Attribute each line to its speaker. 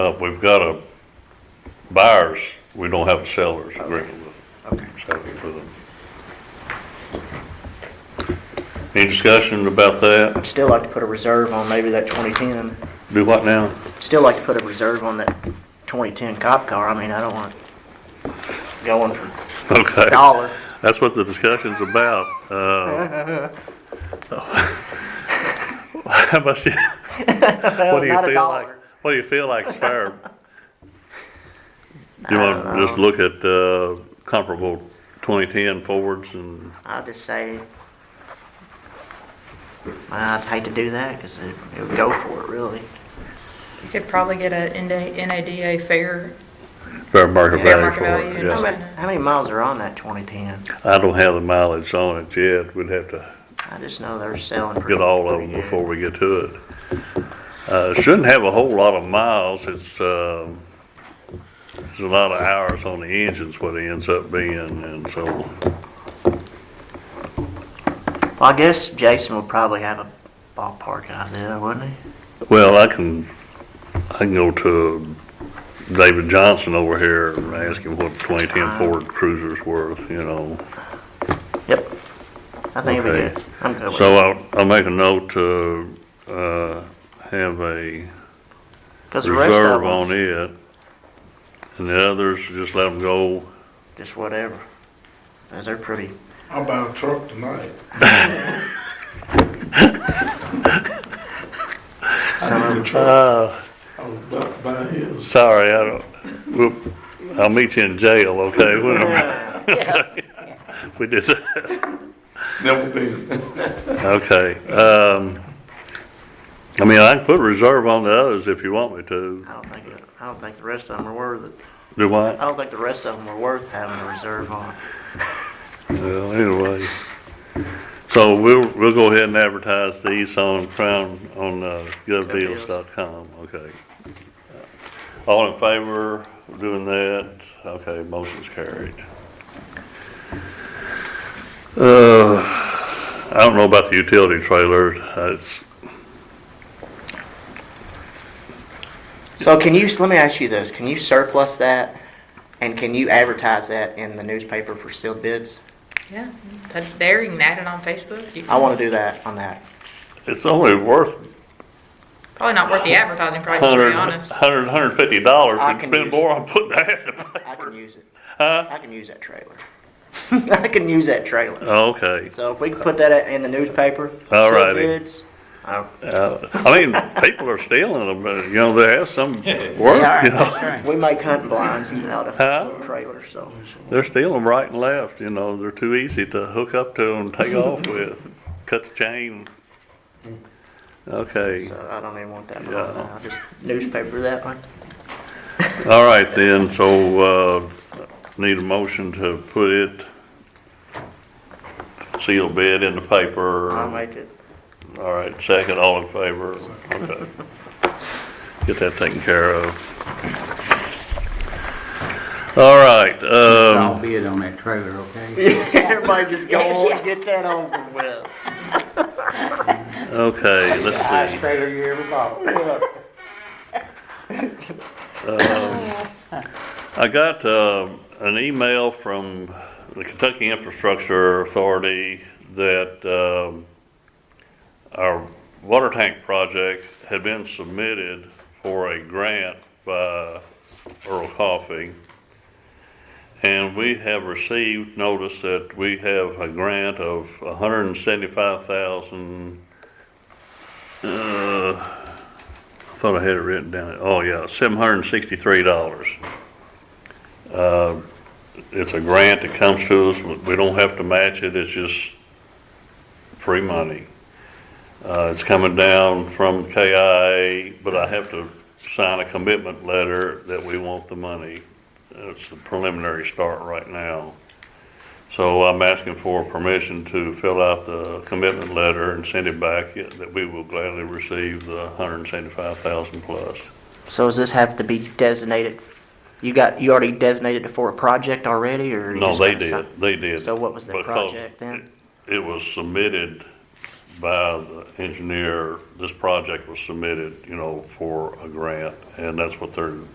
Speaker 1: Uh, we've got a buyers, we don't have a sellers agreement with them. So, with them. Any discussion about that?
Speaker 2: Still like to put a reserve on maybe that 2010.
Speaker 1: Do what now?
Speaker 2: Still like to put a reserve on that 2010 cop car. I mean, I don't want going for
Speaker 1: Okay.
Speaker 2: dollar.
Speaker 1: That's what the discussion's about. Uh, How much, do you- what do you
Speaker 2: Not a
Speaker 1: feel like,
Speaker 2: dollar.
Speaker 1: what do you feel like is fair? Do you
Speaker 2: I
Speaker 1: want
Speaker 2: don't
Speaker 1: to just
Speaker 2: know.
Speaker 1: look at uh, comparable 2010 Fords and,
Speaker 2: I'll just say, I'd hate to do that because it it would go for it, really.
Speaker 3: You could probably get a NDA NADA fair,
Speaker 1: fair market
Speaker 3: fair
Speaker 1: value
Speaker 3: market
Speaker 1: for
Speaker 3: value.
Speaker 1: it?
Speaker 3: and all
Speaker 1: yes.
Speaker 3: that.
Speaker 2: How many miles are on that 2010?
Speaker 1: I don't have the mileage on it yet. We'd have to
Speaker 2: I just know they're selling pretty
Speaker 1: get all of them
Speaker 2: pretty good.
Speaker 1: before we get to it. Uh, it shouldn't have a whole lot of miles. It's, um, it's a lot of hours on the engines what it ends up being and so.
Speaker 2: Well, I guess Jason would probably have a ballpark idea, wouldn't he?
Speaker 1: Well, I can, I can go to David Johnson over here and ask him what twenty ten
Speaker 3: Uh-huh.
Speaker 1: Ford Cruiser's worth, you know.
Speaker 2: Yep. I think it'd be
Speaker 1: Okay.
Speaker 2: good. I'm good with
Speaker 1: So
Speaker 2: it.
Speaker 1: I'll, I'll make a note to, uh, have a
Speaker 2: 'Cause the rest of
Speaker 1: reserve
Speaker 2: them,
Speaker 1: on it. And the others, just let them go.
Speaker 2: just whatever. 'Cause they're pretty
Speaker 4: I'll buy a truck tonight. I need a truck.
Speaker 1: Uh,
Speaker 4: I was about to buy his.
Speaker 1: Sorry, I don't, whoop, I'll meet you in jail, okay? When I'm- We did that,
Speaker 4: Never been.
Speaker 1: okay. Um, I mean, I can put reserve on the others if you want me to.
Speaker 2: I don't think, it- I don't think the rest of them are worth it.
Speaker 1: Do what?
Speaker 2: I don't think the rest of them are worth having a reserve on.
Speaker 1: Well, anyway. So we'll, we'll go ahead and advertise these on Crown, on uh, govdeals.com, okay? All in favor of doing that? Okay, motion's carried. Uh, I don't know about the utility trailer, it's,
Speaker 2: So can you, let me ask you this, can you surplus that? And can you advertise that in the newspaper for sealed bids?
Speaker 3: Yeah, that's there, you can add it on Facebook. You
Speaker 2: I
Speaker 3: can-
Speaker 2: wanna do that on that.
Speaker 1: it's only worth
Speaker 3: Probably not worth the advertising price, to
Speaker 1: hundred,
Speaker 3: be honest.
Speaker 1: hundred, hundred fifty dollars,
Speaker 2: I
Speaker 1: and
Speaker 2: can
Speaker 1: spend
Speaker 2: use
Speaker 1: more on putting that in the
Speaker 2: I can
Speaker 1: paper.
Speaker 2: use it.
Speaker 1: Huh?
Speaker 2: I can use that trailer. I can use that trailer.
Speaker 1: Okay.
Speaker 2: So if we can put that in the newspaper.
Speaker 1: All
Speaker 2: sealed
Speaker 1: righty.
Speaker 2: bids, uh,
Speaker 1: Uh, I mean, people are stealing them, but, you know, there has some work,
Speaker 2: yeah,
Speaker 1: you
Speaker 2: all right.
Speaker 1: know.
Speaker 2: We make hunting blinds out
Speaker 1: Huh?
Speaker 2: of trailers, so.
Speaker 1: They're stealing 'em right and left, you know, they're too easy to hook up to and take off with, cut the chain. Okay,
Speaker 2: So I don't even want that.
Speaker 1: Yeah.
Speaker 2: on there. I'll just newspaper that one.
Speaker 1: all right then, so, uh, need a motion to put it, seal bid in the paper.
Speaker 2: I'll make it.
Speaker 1: All right, second, all in favor? Okay. Get that taken care of. All right,
Speaker 5: I'll
Speaker 1: um,
Speaker 5: be it on that trailer, okay?
Speaker 2: Everybody just go on and get that over with.
Speaker 1: okay, let's see.
Speaker 5: trailer you ever bought.
Speaker 1: I got uh, an email from the Kentucky Infrastructure Authority that um, our water tank project had been submitted for a grant by Earl Coffey. And we have received notice that we have a grant of hundred and seventy-five thousand. I thought I had it written down. Oh, yeah, seven hundred and sixty-three dollars it's a grant that comes to us, we we don't have to match it, it's just free money. Uh, it's coming down from KIA, but I have to sign a commitment letter that we want the money. It's the preliminary start right now. So I'm asking for permission to fill out the commitment letter and send it back, yeah, that we will gladly receive the hundred and seventy-five thousand plus.
Speaker 2: So does this have to be designated? You got, you already designated it for a project already, or? you
Speaker 1: No,
Speaker 2: just
Speaker 1: they
Speaker 2: gotta
Speaker 1: did,
Speaker 2: sign-
Speaker 1: they did.
Speaker 2: So what was the
Speaker 1: because
Speaker 2: project then?
Speaker 1: it- It was submitted by the engineer, this project was submitted, you know, for a grant, and that's what they're